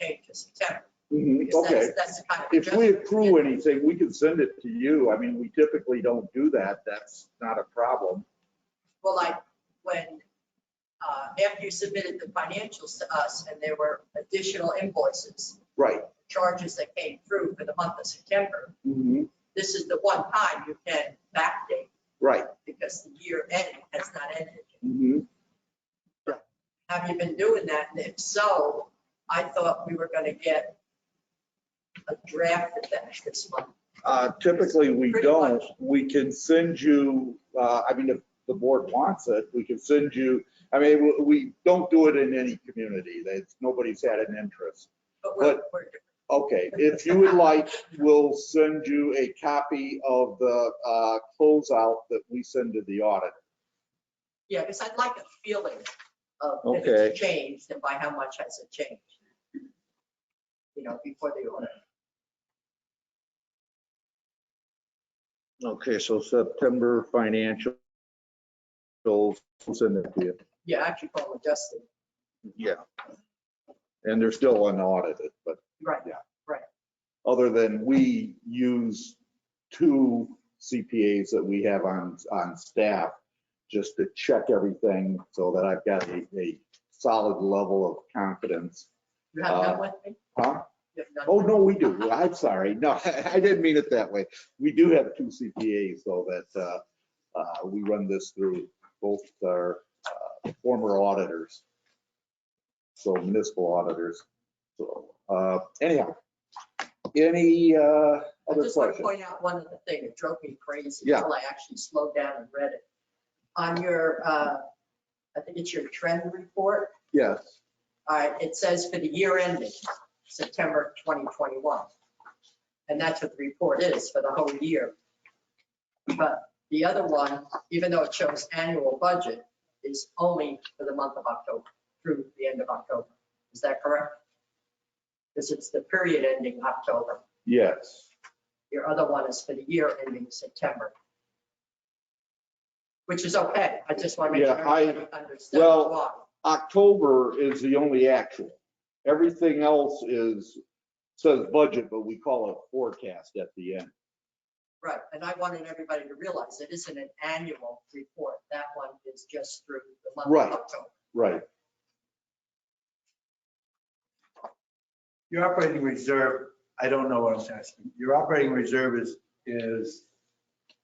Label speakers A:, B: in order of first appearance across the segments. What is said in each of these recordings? A: May to September.
B: Mhm,
A: because
B: Okay.
A: that's- That's the kind of.
B: If we
A: adjustment
B: accrue
A: get.
B: anything, we can send it to you. I mean, we typically don't do that. That's not a problem.
A: Well, like when, uh, after you submitted the financials to us and there were additional invoices,
B: Right.
A: charges that came through for the month of September,
B: Mhm,
A: this is the one time you can backdate
B: Right.
A: because the year end has not ended.
B: Mhm.
A: Have you been doing that? And if so, I thought we were going to get a draft of that this month.
B: Uh, Typically, we
A: Pretty
B: don't.
A: much.
B: We can send you, uh, I mean, if the board wants it, we can send you, I mean, we- we don't do it in any community. That's, nobody's had an interest.
A: But we're, we're,
B: Okay, if you would like, we'll send you a copy of the uh, closeout that we send to the audit.
A: yeah, because I'd like a feeling of if
B: Okay.
A: it's changed and by how much has it changed? You know, before the audit.
B: Okay, so September financials. we'll Send it to you.
A: Yeah, actually call it Justin.
B: Yeah. And they're still unaudited, but
A: Right.
B: other than we use two CPAs that we have on, on staff just to check everything so that I've got a, a solid level of confidence.
A: You have
B: Uh,
A: none with me?
B: Huh?
A: You have none?
B: Oh, no, we do. I'm sorry. No, I didn't mean it that way. We do have two CPAs so that, uh, uh, we run this through both our uh, former auditors. So municipal auditors. So, uh, anyhow, any, uh,
A: I
B: other
A: just want to
B: questions?
A: point out one other thing that drove me crazy
B: Yeah.
A: until I actually slowed down and read it. On your, uh, I think it's your trend report,
B: Yes.
A: All right, Uh, it says for the year ending September 2021. And that's what the report is for the whole year. But the other one, even though it shows annual budget, is only for the month of October, through the end of October. Is that correct? Because it's the period ending October.
B: Yes.
A: Your other one is for the year ending September. Which is okay. I just want to make sure
B: Yeah, I-
A: everybody understands
B: well,
A: why.
B: October is the only actual. Everything else is, says budget, but we call it forecast at the end.
A: Right, and I wanted everybody to realize it isn't an annual report. That one is just through the month
B: Right.
A: of October.
B: Right.
C: Your operating reserve, I don't know what I'm asking. Your operating reserve is, is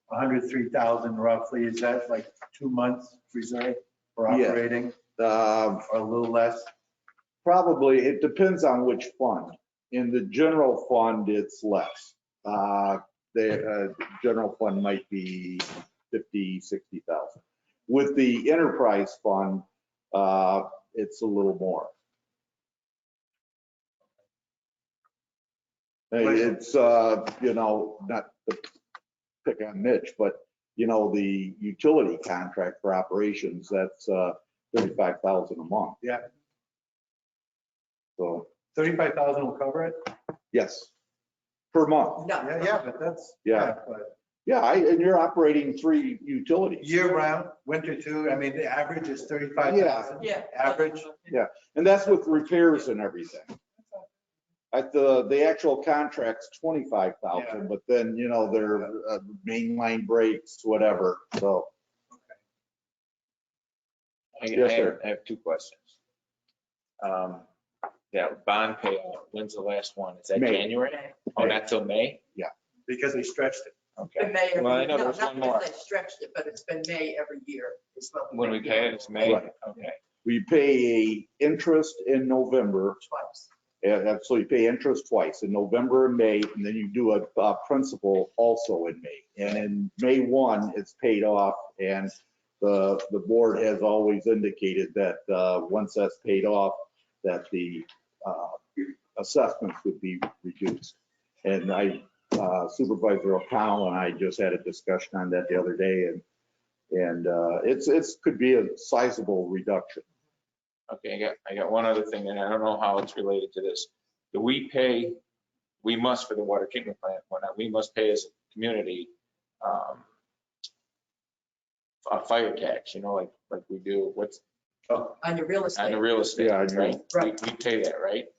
C: 103,000 roughly. Is that like two months reserve for
B: Yeah.
C: operating
B: Um,
C: or a little less?
B: Probably, it depends on which fund. In the general fund, it's less. Uh, The uh, general fund might be 50, 60,000. With the enterprise fund, uh, it's a little more. And It's, uh, you know, not to pick on Mitch, but, you know, the utility contract for operations, that's uh, 35,000 a month. So,
C: 35,000 will cover it?
B: yes, per month.
A: No,
C: Yeah, yeah, but that's.
B: Yeah.
C: but
B: Yeah, I- and you're operating three utilities.
C: Year round, winter too, I mean, the average is 35,000.
A: yeah.
C: Average?
B: And that's with repairs and everything. At the, the actual contract's 25,000, but then, you know, their uh, mainline breaks, whatever, so.
D: I
B: Yes,
D: I have,
B: sir.
D: I have two questions. Um, That bond payout, when's the last one? Is that
B: May.
D: January? Oh, not till May?
C: Because they stretched it.
D: Okay.
A: Been May every,
D: Well, I know
A: no,
D: there's
A: not
D: one more.
A: because they stretched it, but it's been May every year. is what
D: When we
A: been
D: pay it,
A: doing
D: it's May?
B: Right.
D: Okay.
B: We pay a interest in November,
A: Twice.
B: and so you pay interest twice, in November and May, and then you do a, a principal also in May. And in May 1, it's paid off, and the, the board has always indicated that, uh, once that's paid off, that the, uh, assessments would be reduced. And I, uh, Supervisor O'Connell and I just had a discussion on that the other day, and, and, uh, it's, it's, could be a sizable reduction.
D: Okay, I got, I got one other thing, and I don't know how it's related to this. Do we pay, we must for the water treatment plant, well, not we must pay as a community, um, a fire tax, you know, like, like we do, what's,
A: On your real
D: on the
A: estate,
D: real estate,
B: Yeah, I know.
D: right? We
A: Right.
D: we pay that, right?